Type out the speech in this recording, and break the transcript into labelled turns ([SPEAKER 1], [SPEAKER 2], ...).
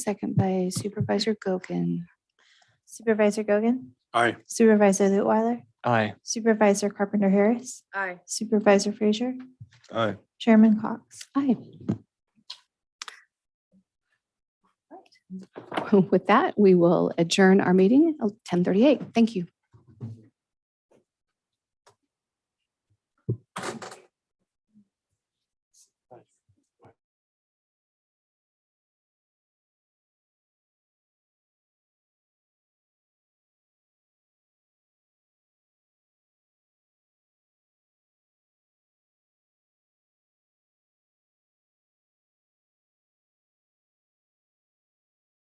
[SPEAKER 1] second by Supervisor Gokin.
[SPEAKER 2] Supervisor Gogan,
[SPEAKER 3] Aye.
[SPEAKER 2] Supervisor Lutwiler,
[SPEAKER 4] Aye.
[SPEAKER 2] Supervisor Carpenter Harris,
[SPEAKER 5] Aye.
[SPEAKER 2] Supervisor Frazier,
[SPEAKER 3] Aye.
[SPEAKER 2] Chairman Cox.
[SPEAKER 1] Aye. With that, we will adjourn our meeting at 10:38. Thank you.